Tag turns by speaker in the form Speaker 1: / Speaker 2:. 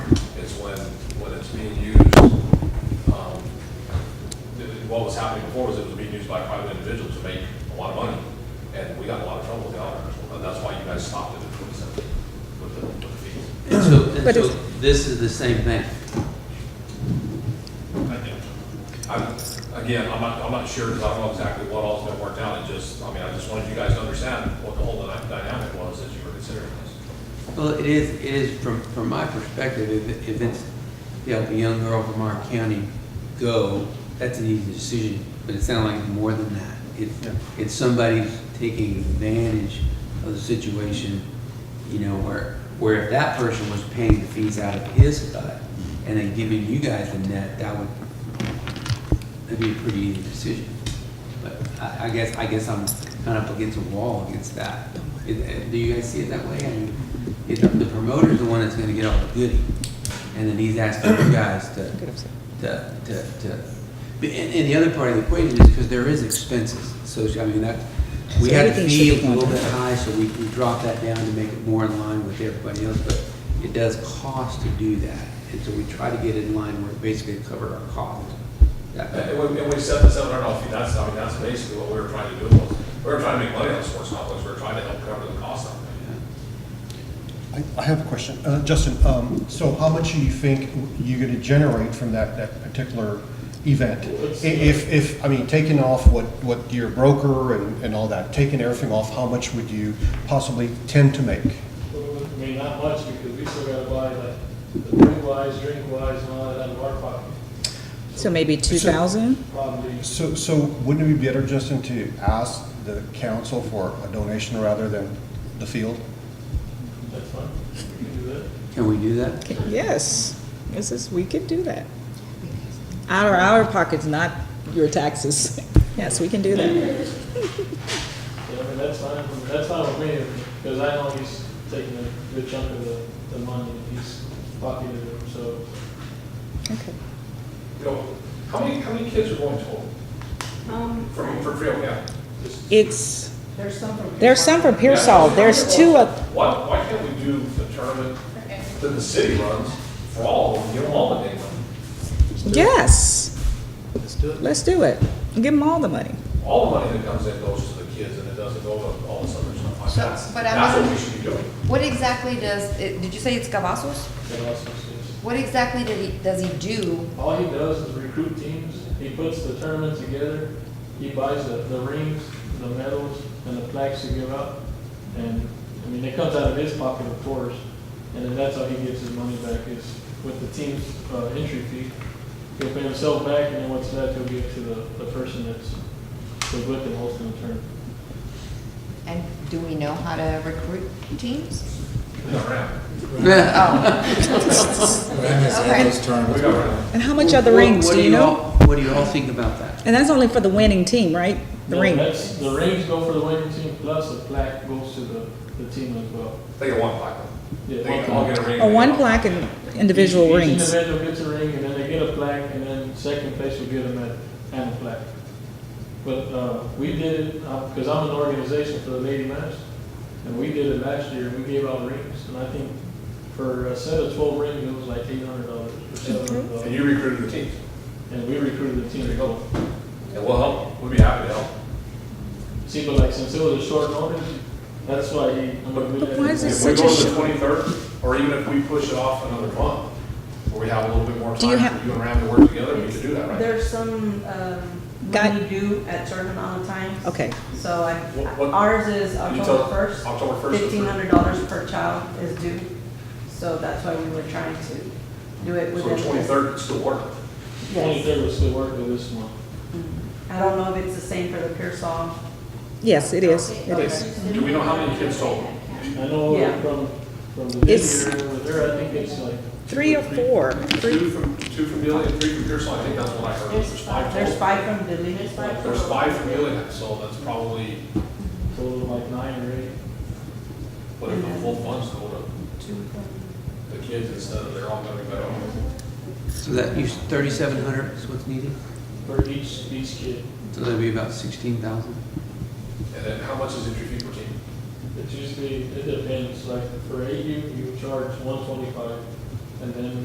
Speaker 1: being used, um, th- what was happening before was it was being used by private individuals to make a lot of money, and we got in a lot of trouble with the auditors, and that's why you guys stopped it at twenty seven with the, with the fees.
Speaker 2: And so, and
Speaker 3: But
Speaker 2: so
Speaker 3: it's-
Speaker 2: this is the same thing.
Speaker 1: I'm, again, I'm not, I'm not sure, because I don't know exactly what all's been worked out, it just, I mean, I just wanted you guys to understand what the whole dyna- dynamic was as you were considering this.
Speaker 2: Well, it is, it is, from, from my perspective, if, if it's, you know, if a young girl from our county go, that's an easy decision, but it sounds like more than that. It's,
Speaker 4: Yeah.
Speaker 2: it's somebody taking advantage of the situation, you know, where, where if that person was paying the fees out of his butt and then giving you guys the net, that would, that'd be a pretty easy decision. But I, I guess, I guess I'm kind of up against a wall against that. It- it- Do you guys see it that way? I mean, it- the promoter's the one that's gonna get all the goodie, and then he's asking you guys to, to, to, to. But- And, and the other part of the equation is, because there is expenses, so, I mean, that, we
Speaker 3: So
Speaker 2: had a
Speaker 3: everything
Speaker 2: fee
Speaker 3: should
Speaker 2: a
Speaker 3: be
Speaker 2: little bit
Speaker 3: quantified.
Speaker 2: high, so we, we dropped that down to make it more in line with everybody else, but it does cost to do that. And so we try to get in line where it basically cover our costs. That- that-
Speaker 1: And we, and we set this seven hundred dollar fee, that's, I mean, that's basically what we were trying to do, was, we were trying to make money on the sports complex, we were trying to help cover the cost of it.
Speaker 4: I, I have a question. Uh, Justin, um, so how much do you think you're gonna generate from that, that particular event? I- If, if, I mean, taking off what, what your broker and, and all that, taking everything off, how much would you possibly tend to make?
Speaker 5: I mean, not much, because we still gotta buy the, the food wise, drink wise, and all that out of our pocket,
Speaker 3: So maybe 2,000?
Speaker 5: probably.
Speaker 4: So, so wouldn't it be better, Justin, to ask the council for a donation rather than the field?
Speaker 5: That's fine, we can do that.
Speaker 2: Can we do that?
Speaker 3: Yes, this is, we could do that. Out of our pockets, not your taxes. Yes, we can do that.
Speaker 5: Yeah, I mean, that's fine, with- that's fine with me, because I know he's taking a good chunk of the, the money, he's pocketed it, so.
Speaker 3: Okay.
Speaker 1: You know, how many, how many kids are going total
Speaker 6: Um,
Speaker 1: from, from Trail County?
Speaker 3: It's,
Speaker 6: there's some from.
Speaker 3: there's some from Pearsall, there's two of,
Speaker 1: Why, why can't we do the tournament that the city runs for all of them, give them all the day money?
Speaker 3: yes. Let's do it. Give them all the money.
Speaker 1: All the money that comes in goes to the kids and it doesn't go to all this other stuff like
Speaker 7: So,
Speaker 1: that.
Speaker 7: but I'm
Speaker 1: That's what
Speaker 7: not-
Speaker 1: we should be doing.
Speaker 7: What exactly does, it- did you say it's Cavazos?
Speaker 5: that also says-
Speaker 7: What exactly did he, does he do?
Speaker 5: All he does is recruit teams, he puts the tournament together, he buys the, the rings, the medals, and the plaques to give out. And, I mean, it comes out of his pocket, of course, and then that's how he gets his money back is with the team's, uh, entry fee. He'll pay himself back, and then what's left, he'll give to the, the person that's, that's with him hosting the tournament.
Speaker 7: And do we know how to recruit teams?
Speaker 1: We got around.
Speaker 7: Oh, okay.
Speaker 1: We got around.
Speaker 3: And how much are the
Speaker 2: What-
Speaker 3: rings,
Speaker 2: what
Speaker 3: do you know?
Speaker 2: all- What do you all think about that?
Speaker 3: And that's only for the winning team, right? The
Speaker 5: No,
Speaker 3: ring.
Speaker 5: that's- The rings go for the winning team, plus the plaque goes to the, the team as well.
Speaker 1: They get one plaque. They
Speaker 5: Yeah,
Speaker 1: get- all get a ring.
Speaker 3: Or Oh, one
Speaker 1: They-
Speaker 3: plaque and individual
Speaker 5: Each-
Speaker 3: rings.
Speaker 5: Each individual gets a ring, and then they get a plaque, and then second place will get a medal and a plaque. But uh, we did it, because I'm an organization for the Lady Mass, and we did it last year, and we gave out rings, and I think for a set of twelve rings, it was like eight hundred dollars or seven hundred
Speaker 1: And
Speaker 5: dollars.
Speaker 1: you recruited the teams.
Speaker 5: And we recruited the team to go.
Speaker 1: And we'll help. them. We'd be happy to help.
Speaker 5: See, but like, since it was a short notice, that's why he. I mean, we
Speaker 3: But
Speaker 5: had-
Speaker 3: why is
Speaker 1: If
Speaker 3: It's
Speaker 1: we
Speaker 3: such
Speaker 1: go
Speaker 3: a
Speaker 1: to the
Speaker 3: sh-
Speaker 1: twenty-third, or even if we push it off another month, where we have a little bit more
Speaker 3: Do you
Speaker 1: time
Speaker 3: have-
Speaker 1: for you and Ram to work together, we could do that, right?
Speaker 6: There's some, um,
Speaker 3: Got-
Speaker 6: money due at certain amount of times.
Speaker 3: Okay.
Speaker 6: So I,
Speaker 1: What- what-
Speaker 6: ours is
Speaker 1: You tell-
Speaker 6: October first.
Speaker 1: October first.
Speaker 6: Fifteen hundred dollars per child is due, so that's why we were trying to do it
Speaker 1: So
Speaker 6: within.
Speaker 1: the twenty-third still work.
Speaker 6: Yes.
Speaker 5: Twenty-third was still working this month.
Speaker 6: I don't know if it's the same for the Pearsall.
Speaker 3: Yes, it is, it
Speaker 6: Okay.
Speaker 3: is.
Speaker 1: Do we know how many kids total?
Speaker 5: I know
Speaker 6: Yeah.
Speaker 5: from, from the
Speaker 3: It's-
Speaker 5: this year, over there, I think it's like
Speaker 3: Three or four.
Speaker 1: Two from, two from Dealey and three from Pearsall, I think that's what I heard,
Speaker 6: There's
Speaker 1: there's five
Speaker 6: five, there's
Speaker 1: total.
Speaker 6: five from Dilley. There's
Speaker 1: There's five from Dealey, so that's probably,
Speaker 5: total of like nine or eight.
Speaker 1: what if the full funds go to the kids instead of they're all gonna go
Speaker 2: So that, you, thirty-seven hundred is what's needed?
Speaker 5: for each, each kid.
Speaker 2: So that'd be about sixteen thousand?
Speaker 1: And then how much is entry fee per team?
Speaker 5: It's usually, it depends, like for AU, you charge one twenty-five, and then